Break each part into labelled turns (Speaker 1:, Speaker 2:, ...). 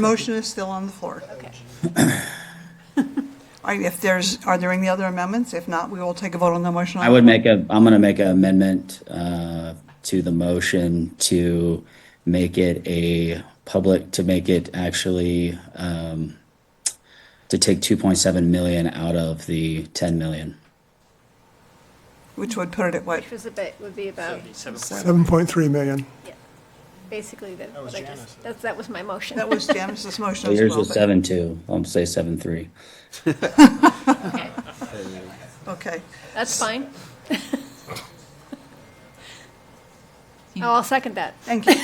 Speaker 1: Motion is still on the floor. Okay. All right, if there's, are there any other amendments? If not, we will take a vote on the motion. on
Speaker 2: I
Speaker 1: the
Speaker 2: would
Speaker 1: floor.
Speaker 2: make a, I'm gonna make an amendment, uh, to the motion to make it a public, to make it actually, um, to take two point seven million out of the ten million.
Speaker 1: Which would put it at what?
Speaker 3: Which was a bit, would be about,
Speaker 4: 7.3 million.
Speaker 3: yeah, basically, that,
Speaker 5: was
Speaker 3: what I
Speaker 5: Janice.
Speaker 3: just, that, that was my motion.
Speaker 1: That was Janice's motion as
Speaker 2: Yours
Speaker 1: well.
Speaker 2: was
Speaker 1: but-
Speaker 2: seven two, I'll say seven three.
Speaker 1: Okay,
Speaker 3: That's fine. Oh, I'll second that.
Speaker 1: thank you.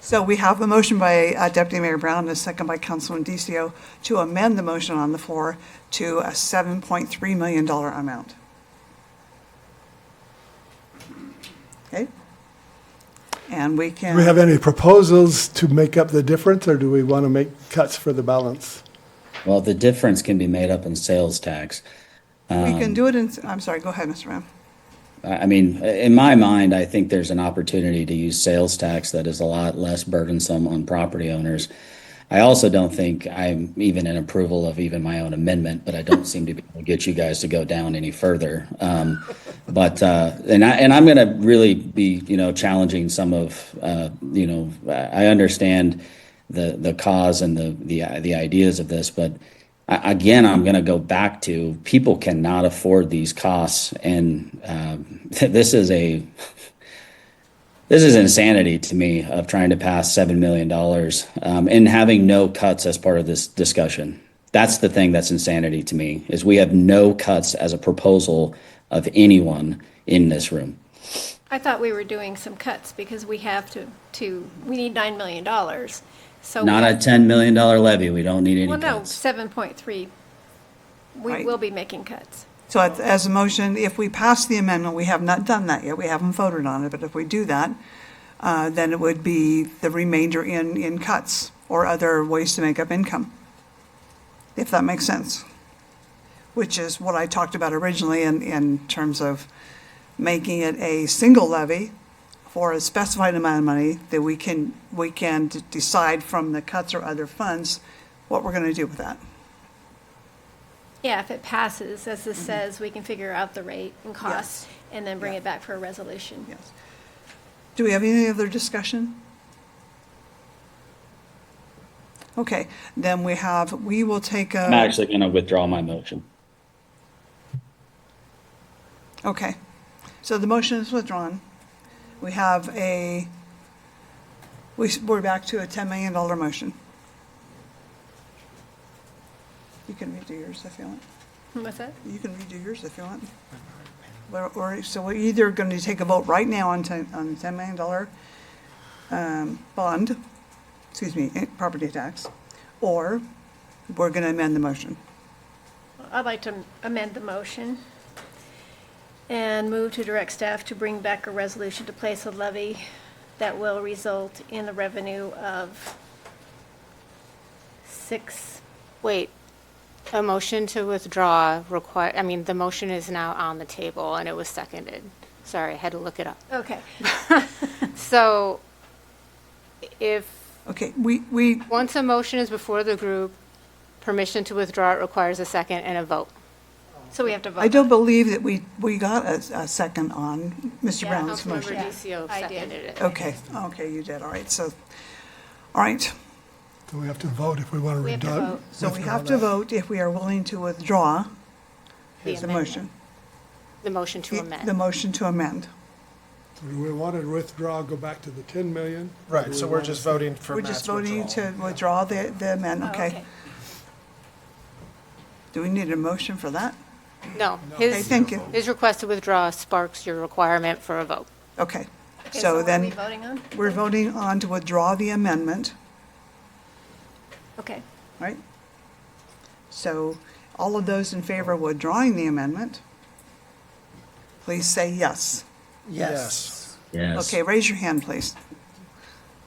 Speaker 1: So we have a motion by uh, Deputy Mayor Brown, and a second by Councilman DCO to amend the motion on the floor to a $7.3 million amount. Okay? And we can.
Speaker 4: Do we have any proposals to make up the difference, or do we want to make cuts for the balance?
Speaker 2: Well, the difference can be made up in sales tax.
Speaker 1: We
Speaker 2: Um,
Speaker 1: can do it in, I'm sorry, go ahead, Mr. Brown.
Speaker 2: I I mean, in my mind, I think there's an opportunity to use sales tax that is a lot less burdensome on property owners. I also don't think I'm even in approval of even my own amendment, but I don't seem to be able to get you guys to go down any further. Um, but uh, and I and I'm going to really be you know challenging some of uh, you know I I understand the the cause and the the the ideas of this, but I- again, I'm going to go back to people cannot afford these costs, and um, this is a this is insanity to me of trying to pass seven million dollars um, and having no cuts as part of this discussion. That's the thing that's insanity to me is we have no cuts as a proposal of anyone in this room.
Speaker 3: I thought we were doing some cuts because we have to, to, we need nine million dollars. So,
Speaker 2: Not a ten million dollar levy. We don't need any
Speaker 3: well, no,
Speaker 2: cuts.
Speaker 3: seven point three. We
Speaker 1: Right.
Speaker 3: will be making cuts.
Speaker 1: So at- as a motion, if we pass the amendment, we have not done that yet, we haven't voted on it, but if we do that, uh, then it would be the remainder in, in cuts or other ways to make up income, if that makes sense. Which is what I talked about originally in, in terms of making it a single levy for a specified amount of money that we can, we can d- decide from the cuts or other funds what we're going to do with that.
Speaker 3: Yeah, if it passes, as this says, we can figure out the rate and cost and then bring
Speaker 1: Mm-hmm. Yeah.
Speaker 3: it back for a resolution.
Speaker 1: Yes. Do we have any other discussion? Okay, then we have, we will take
Speaker 2: I'm
Speaker 1: a,
Speaker 2: actually going to withdraw my motion.
Speaker 1: okay. So the motion is withdrawn. We have a, we, s- we're back to a $10 million motion. You can redo yours if you want.
Speaker 3: What's that?
Speaker 1: You can redo yours if you want. Or, or- so we're either going to take a vote right now on ten, on the ten million dollar, um, bond, excuse me, eh, property tax, or we're going to amend the motion.
Speaker 3: I'd like to amend the motion and move to direct staff to bring back a resolution to place a levy that will result in the revenue of six,
Speaker 6: Wait, a motion to withdraw require, I mean, the motion is now on the table and it was seconded. Sorry, I had to look it up.
Speaker 3: okay.
Speaker 6: So if,
Speaker 1: Okay, we, we,
Speaker 6: once a motion is before the group, permission to withdraw it requires a second and a vote.
Speaker 3: So we have to vote.
Speaker 1: I don't believe that we, we got a, a second on Mr.
Speaker 3: Yeah,
Speaker 1: Brown's
Speaker 6: Councilmember
Speaker 1: motion.
Speaker 3: Yeah,
Speaker 6: DCO
Speaker 3: I did.
Speaker 6: seconded it.
Speaker 1: Okay, okay, you did, all right, so, all right.
Speaker 4: Do we have to vote if we want to
Speaker 3: We have to
Speaker 4: redo?
Speaker 3: vote.
Speaker 1: So we have to vote if we are willing to withdraw
Speaker 6: The
Speaker 1: the
Speaker 6: amendment.
Speaker 1: motion.
Speaker 6: The motion to amend.
Speaker 1: The motion to amend.
Speaker 4: Do we want to withdraw, go back to the 10 million?
Speaker 5: Right, so we're just voting for
Speaker 1: We're
Speaker 5: Matt's
Speaker 1: just
Speaker 5: withdrawal.
Speaker 1: voting to withdraw the, the
Speaker 3: Oh,
Speaker 1: amendment, okay? Do we need a motion for that?
Speaker 6: No,
Speaker 1: Okay,
Speaker 6: his,
Speaker 1: thank you.
Speaker 6: his request to withdraw sparks your requirement for a vote.
Speaker 1: Okay,
Speaker 3: Okay,
Speaker 1: so
Speaker 3: what are we
Speaker 1: then,
Speaker 3: voting on?
Speaker 1: we're voting on to withdraw the amendment,
Speaker 3: Okay,
Speaker 1: right? So, all of those in favor of withdrawing the amendment, please say yes.
Speaker 5: Yes.
Speaker 2: Yes.
Speaker 1: Okay, raise your hand, please.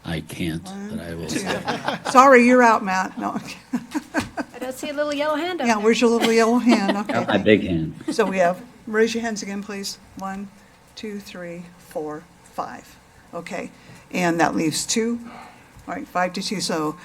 Speaker 2: I can't, but I will.
Speaker 1: Sorry, you're out, Matt. No, okay.
Speaker 3: I don't see a little yellow hand up
Speaker 1: yeah,
Speaker 3: there.
Speaker 1: where's your little yellow hand? Okay.
Speaker 2: My big hand.
Speaker 1: So we have, raise your hands again, please. One, two, three, four, five. Okay, and that leaves two. All right, five to two, so